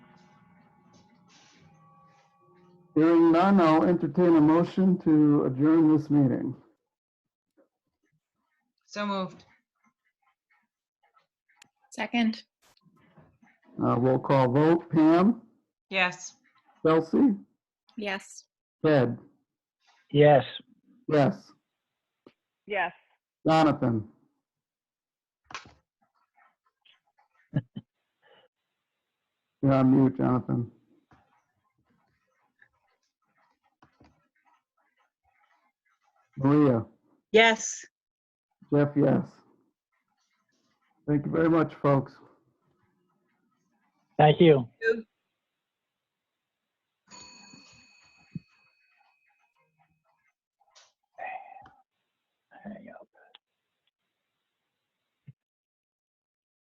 Hearing none, I'll entertain a motion to adjourn this meeting. So moved. Second, Uh, Roll call vote, Pam, Yes. Chelsea, yes. Ted, Yes. yes, Yes. Jonathan, you're on mute, Jonathan. Maria, Yes. Jeff, yes. Thank you very much, folks. Thank you. Sue?